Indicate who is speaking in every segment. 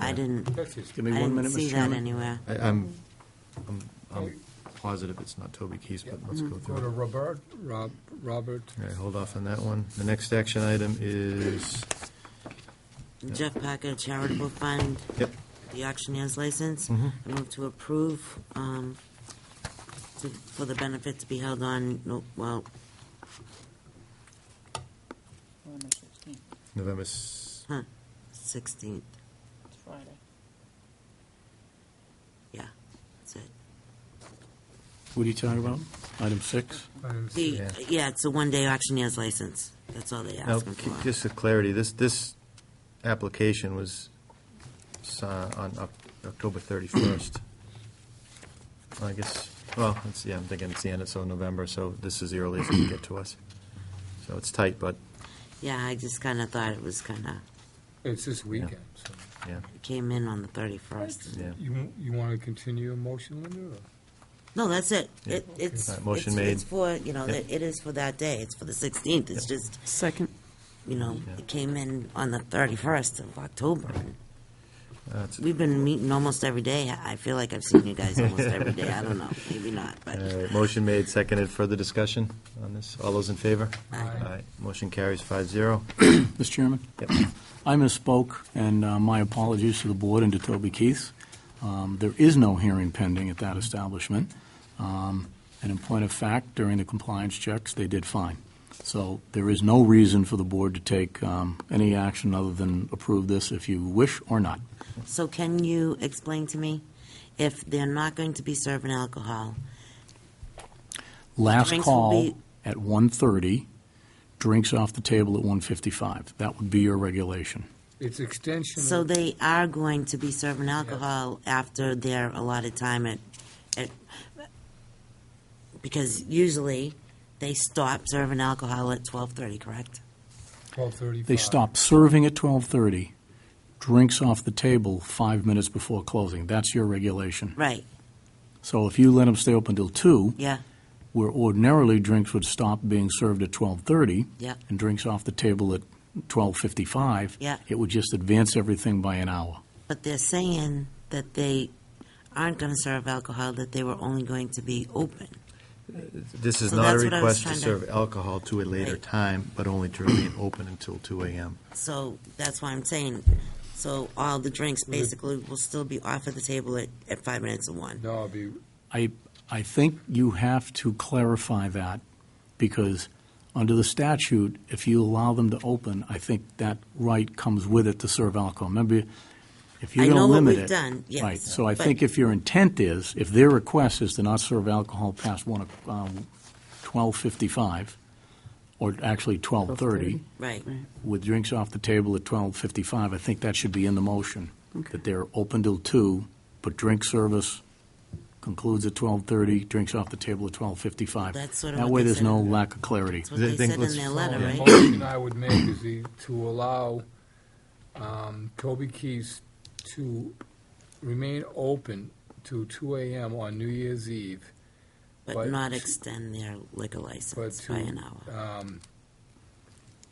Speaker 1: I didn't,
Speaker 2: Give
Speaker 1: I
Speaker 2: me one
Speaker 1: didn't
Speaker 2: minute,
Speaker 1: see
Speaker 2: Mr.
Speaker 1: that
Speaker 2: Chairman.
Speaker 1: anywhere.
Speaker 3: I- I'm, I'm, I'm positive it's not Toby Keith, but let's
Speaker 1: Mm-hmm.
Speaker 3: go
Speaker 4: Go
Speaker 3: through
Speaker 4: to
Speaker 3: it.
Speaker 4: Robert, Rob, Robert.
Speaker 3: All right, hold off on that one. The next action item is,
Speaker 1: Jeff Packer Charitable Fund,
Speaker 3: yep,
Speaker 1: the auctioneer's license.
Speaker 3: Mhm.
Speaker 1: I move to approve, um, to- for the benefit to be held on, no- well,
Speaker 5: November 16th,
Speaker 3: November, s-
Speaker 1: 16th,
Speaker 5: it's Friday.
Speaker 1: yeah, that's it.
Speaker 2: What are you talking about? Item six?
Speaker 4: and
Speaker 1: The,
Speaker 3: Yeah.
Speaker 1: yeah, it's a one-day auctioneer's license, that's all they
Speaker 3: now,
Speaker 1: ask him
Speaker 3: c-
Speaker 1: for.
Speaker 3: just for clarity, this, this application was si- on Oc- October 31st. I guess, well, it's, yeah, I'm thinking it's the end of, so November, so this is the earliest it can get to us. So it's tight, but,
Speaker 1: Yeah, I just kinda thought it was kinda,
Speaker 4: It's this weekend, so.
Speaker 3: yeah,
Speaker 1: it came in on the 31st.
Speaker 3: yeah.
Speaker 4: You, you want to continue your motion, Linda? or-
Speaker 1: No, that's it,
Speaker 3: Yeah.
Speaker 1: it, it's,
Speaker 3: All right, motion
Speaker 1: it's- it's
Speaker 3: made.
Speaker 1: for, you know,
Speaker 3: Yeah.
Speaker 1: it it is for that day, it's for the 16th, it's just,
Speaker 6: Second.
Speaker 1: you know,
Speaker 3: Yeah.
Speaker 1: it came in on the 31st of October. and
Speaker 3: Uh, it's-
Speaker 1: We've been meeting almost every day. I I feel like I've seen you guys almost every day. I don't know, maybe not, but
Speaker 3: All right, Motion made, seconded. Further discussion on this? All those in favor?
Speaker 1: Aye.
Speaker 3: Motion carries five zero.
Speaker 2: Mr. Chairman?
Speaker 3: Yep.
Speaker 2: I misspoke, and uh, my apologies to the board and to Toby Keith. Um, There is no hearing pending at that establishment. Um, And in point of fact, during the compliance checks, they did fine. So there is no reason for the board to take um, any action other than approve this if you wish or not.
Speaker 1: so can you explain to me if they're not going to be serving alcohol?
Speaker 2: Last
Speaker 1: Drinks will
Speaker 2: call
Speaker 1: be-
Speaker 2: at 1:30, drinks off the table at 1:55. That would be your regulation.
Speaker 4: It's extension.
Speaker 1: So
Speaker 4: of-
Speaker 1: they are going to be serving alcohol after their allotted time at, at because usually they stop serving alcohol at 12:30, correct?
Speaker 4: 12:35.
Speaker 2: They stop serving at 12:30, drinks off the table five minutes before closing. That's your regulation.
Speaker 1: Right,
Speaker 2: So if you let them stay open till 2,
Speaker 1: yeah,
Speaker 2: where ordinarily drinks would stop being served at 12:30
Speaker 1: yeah.
Speaker 2: and drinks off the table at 12:55,
Speaker 1: Yeah.
Speaker 2: it would just advance everything by an hour.
Speaker 1: But they're saying that they aren't going to serve alcohol, that they were only going to be open.
Speaker 3: This is
Speaker 1: So
Speaker 3: not a
Speaker 1: that's what I was
Speaker 3: request to
Speaker 1: trying to-
Speaker 3: serve alcohol to a later
Speaker 1: Right.
Speaker 3: time, but only to remain open until two AM.
Speaker 1: So that's why I'm saying, so all the drinks
Speaker 4: Mm-hmm.
Speaker 1: basically will still be off at the table at, at five minutes of one.
Speaker 4: No, it'd be,
Speaker 2: I, I think you have to clarify that, because under the statute, if you allow them to open, I think that right comes with it to serve alcohol. Remember, if you're
Speaker 1: I
Speaker 2: going to
Speaker 1: know what
Speaker 2: limit it.
Speaker 1: we've done, yes,
Speaker 2: Right, so I
Speaker 1: but-
Speaker 2: think if your intent is, if their request is to not serve alcohol past one, o- um, 12:55, or actually 12:30,
Speaker 1: Right.
Speaker 2: with drinks off the table at 12:55, I think that should be in the motion, that they're open till two, but drink service concludes at 12:30, drinks off the table at 12:55.
Speaker 1: That's sort of
Speaker 2: That
Speaker 1: what
Speaker 2: way,
Speaker 1: they
Speaker 2: there's
Speaker 1: said.
Speaker 2: no lack of clarity.
Speaker 1: That's what
Speaker 3: They
Speaker 1: they
Speaker 3: think
Speaker 1: said
Speaker 3: let's
Speaker 1: in their
Speaker 3: follow
Speaker 1: letter,
Speaker 4: the
Speaker 1: right?
Speaker 4: motion I would make is the- to allow um, Toby Keith's to remain open to 2 AM on New Year's Eve,
Speaker 1: But
Speaker 4: But-
Speaker 1: not extend their liquor license
Speaker 4: to-
Speaker 1: by an hour.
Speaker 4: um,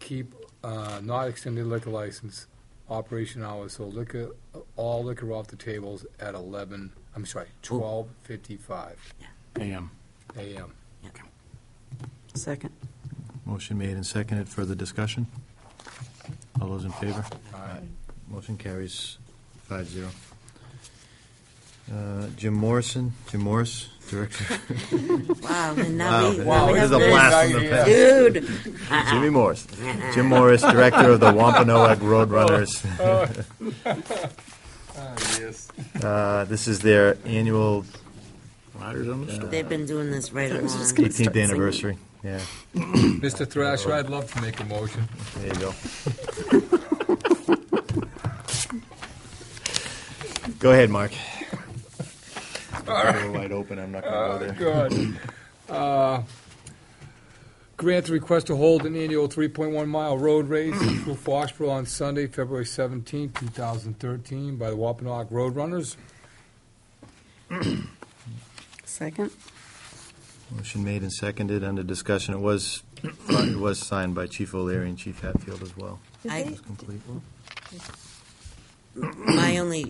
Speaker 4: keep, uh, not extended liquor license, operation hours, so liquor, all liquor off the tables at 11, I'm sorry, 12:55
Speaker 2: AM.
Speaker 4: AM.
Speaker 6: Second.
Speaker 3: Motion made and seconded. Further discussion? All those in favor?
Speaker 4: Aye.
Speaker 3: Motion carries five zero. Uh, Jim Morrison, Jim Morris, Director.
Speaker 1: Wow, and now we, now
Speaker 3: Wow,
Speaker 1: we
Speaker 3: this
Speaker 1: have
Speaker 3: is a
Speaker 1: this.
Speaker 3: blast from the past.
Speaker 1: Dude,
Speaker 3: Jimmy Morris. Jim Morris, Director of the Wampanoag Roadrunners.
Speaker 4: Yes.
Speaker 3: Uh, This is their annual
Speaker 2: Riders on the storm.
Speaker 1: they've been doing this right along.
Speaker 6: start
Speaker 3: 18th
Speaker 6: singing.
Speaker 3: anniversary. Yeah,
Speaker 4: Mr. Thrasher, I'd love to make a motion.
Speaker 3: there you go. Go ahead, Mark. Door Wide open, I'm not gonna go there.
Speaker 4: Good. Uh, Grant the request to hold an annual 3.1-mile road race through Foxborough on Sunday, February 17, 2013, by the Wampanoag Roadrunners.
Speaker 6: Second.
Speaker 3: Motion made and seconded under discussion. It was, it was signed by Chief O'Leary and Chief Hatfield as well.
Speaker 1: I,
Speaker 3: It's complete.
Speaker 1: my only